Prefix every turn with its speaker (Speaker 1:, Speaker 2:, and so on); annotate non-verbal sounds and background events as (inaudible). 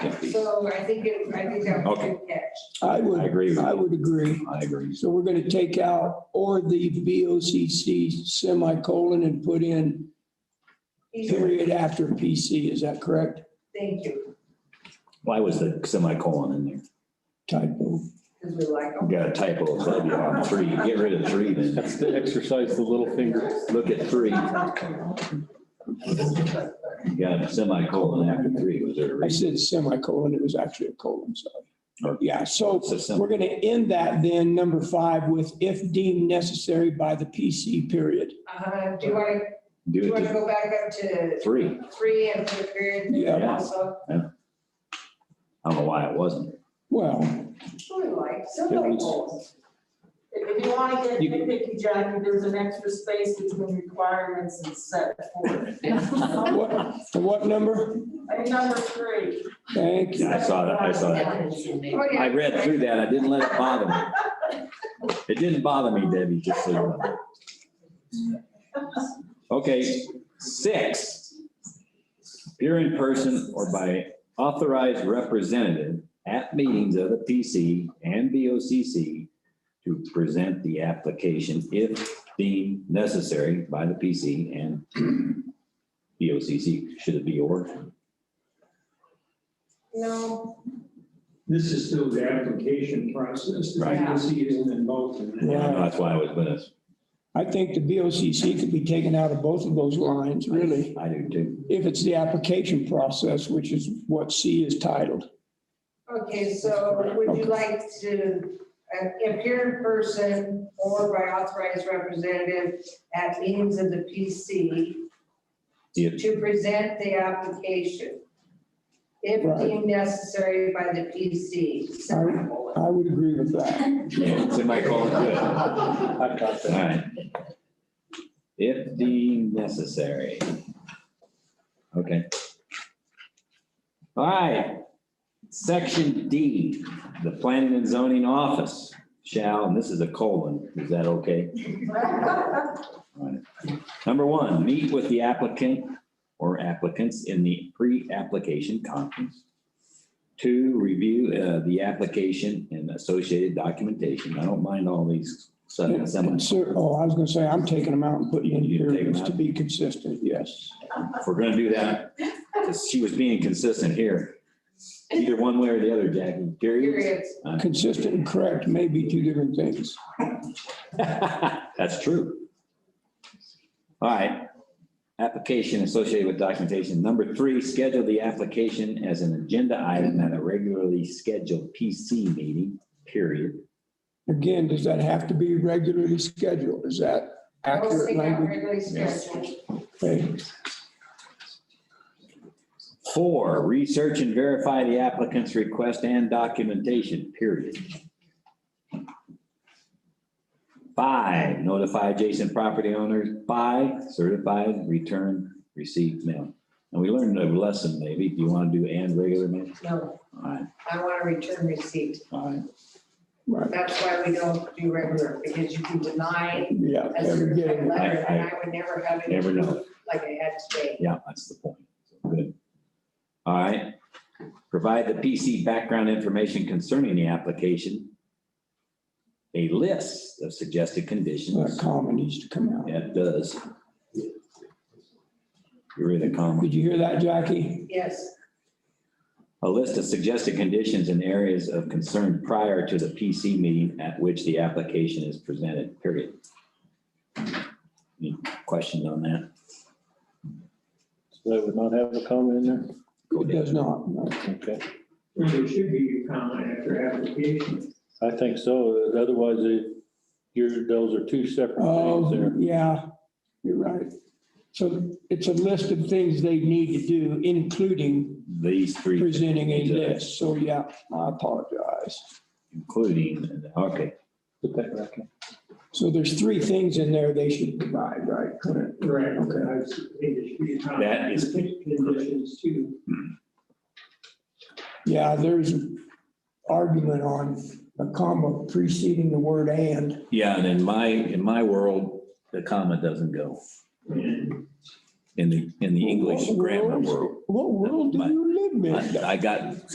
Speaker 1: So I think it, I think that was a good catch.
Speaker 2: I
Speaker 3: I
Speaker 2: would,
Speaker 3: agree with
Speaker 2: I
Speaker 3: you.
Speaker 2: would agree.
Speaker 3: I agree.
Speaker 2: So we're gonna take out or the B O C C semicolon and put in
Speaker 1: He's-
Speaker 2: period after P C. Is that correct?
Speaker 1: Thank you,
Speaker 3: Why was the semicolon in there?
Speaker 2: Typo.
Speaker 1: because we like
Speaker 3: We
Speaker 1: them.
Speaker 3: Got a typo, that'd be on three, get rid of three then,
Speaker 4: That's to exercise the little finger.
Speaker 3: look at three. You got a semicolon after three, was there a
Speaker 2: I
Speaker 3: reason?
Speaker 2: said semicolon. It was actually a colon, sorry. Yeah, so
Speaker 3: So sem-
Speaker 2: we're gonna end that then, number five, with if deemed necessary by the P C period.
Speaker 1: Uh, do you want to, do you
Speaker 3: Do it
Speaker 1: want to
Speaker 3: to
Speaker 1: go back up to
Speaker 3: three,
Speaker 1: three and put a period there
Speaker 2: Yeah.
Speaker 1: also?
Speaker 3: I don't know why it wasn't.
Speaker 2: Well,
Speaker 1: Sure, we like, semicolons.
Speaker 5: If if you want to get
Speaker 3: You-
Speaker 5: nitpicky, Jackie, there's an extra space between requirements and set
Speaker 3: (laughs)
Speaker 5: forth.
Speaker 2: what, what number?
Speaker 5: And number three.
Speaker 2: Thank you.
Speaker 3: Yeah, I saw that, I saw that.
Speaker 1: Oh, yeah.
Speaker 3: I read through that, I didn't let it bother me. It didn't bother me, Debbie, just so you know. Okay, six. Appear in person or by authorized representative at meetings of the PC and BOCC to present the application if deemed necessary by the PC and BOCC. Should it be or?
Speaker 1: No,
Speaker 6: This is still the application process. The
Speaker 3: Right.
Speaker 6: agency isn't involved in that.
Speaker 2: Yeah.
Speaker 3: Yeah, That's why I was gonna,
Speaker 2: I think the B O C C could be taken out of both of those lines, really.
Speaker 3: I do too.
Speaker 2: if it's the application process, which is what C is titled.
Speaker 1: okay, so would you like to uh, appear in person or by authorized representative at meetings of the PC
Speaker 3: Yeah.
Speaker 1: to present the application
Speaker 2: Right.
Speaker 1: if deemed necessary by the PC? Semicolon.
Speaker 2: I would agree with that.
Speaker 3: Yeah, semicolon, good.
Speaker 4: I've got that.
Speaker 3: Alright. If deemed necessary. Okay. Alright, section D, the planning and zoning office shall, and this is a colon, is that okay?
Speaker 5: (laughs)
Speaker 3: Number one, meet with the applicant or applicants in the pre-application conference. Two, review uh, the application and associated documentation. I don't mind all these sudden seminars.
Speaker 2: And so- oh, I was gonna say, I'm taking them out and putting in
Speaker 3: You
Speaker 2: here
Speaker 3: take 'em
Speaker 2: just to
Speaker 3: out?
Speaker 2: be consistent, yes.
Speaker 3: if we're gonna do that, 'cause she was being consistent here. Either one way or the other, Jackie, period.
Speaker 1: Periods.
Speaker 2: Consistent and correct may be two different things.
Speaker 3: (laughs) That's true. All right, application associated with documentation. Number three, schedule the application as an agenda item at a regularly scheduled PC meeting, period.
Speaker 2: Again, does that have to be regularly scheduled? Is that
Speaker 1: I was
Speaker 2: accurate
Speaker 1: thinking
Speaker 2: language?
Speaker 1: regularly scheduled.
Speaker 2: Okay.
Speaker 3: Four, research and verify the applicant's request and documentation, period. Five, notify adjacent property owners by certified return received mail. And we learned a lesson maybe, do you want to do and regular mail?
Speaker 1: No,
Speaker 3: All right,
Speaker 1: I want a return receipt.
Speaker 3: all right.
Speaker 2: Right,
Speaker 1: That's why we don't do regular, because you can deny
Speaker 2: yeah,
Speaker 1: a
Speaker 2: never get
Speaker 1: certified
Speaker 2: it.
Speaker 1: letter,
Speaker 3: I- I-
Speaker 1: and I would never have it.
Speaker 3: Never know.
Speaker 1: Like I had today.
Speaker 3: Yeah, that's the point. Good. All right. Provide the PC background information concerning the application. A list of suggested
Speaker 2: That
Speaker 3: conditions.
Speaker 2: comma needs to come out.
Speaker 3: Yeah, it does. You read the comment.
Speaker 2: Did you hear that, Jackie?
Speaker 1: Yes,
Speaker 3: A list of suggested conditions and areas of concern prior to the PC meeting at which the application is presented, period. Any questions on that?
Speaker 4: So That would not have a comma in there?
Speaker 3: Go
Speaker 2: It
Speaker 3: ahead.
Speaker 2: does not. no.
Speaker 4: Okay,
Speaker 6: Well, There should be a comment after application.
Speaker 4: I think so. Otherwise, it, your, those are two separate things
Speaker 2: Oh,
Speaker 4: there.
Speaker 2: yeah, you're right. So it's a list of things they need to do, including
Speaker 3: These three.
Speaker 2: presenting a
Speaker 3: things, uh,
Speaker 2: list. So yeah, I apologize.
Speaker 3: Including, okay,
Speaker 4: Put that back in.
Speaker 2: So there's three things in there they should provide, right? Correct.
Speaker 6: Correct. I was- There should be a comment.
Speaker 3: That is-
Speaker 6: Conditions too.
Speaker 2: Yeah, there's argument on a comma preceding the word and.
Speaker 3: yeah, and in my, in my world, the comma doesn't go
Speaker 6: And
Speaker 3: in the, in the English grammar world.
Speaker 2: What world do you live in?
Speaker 3: I I got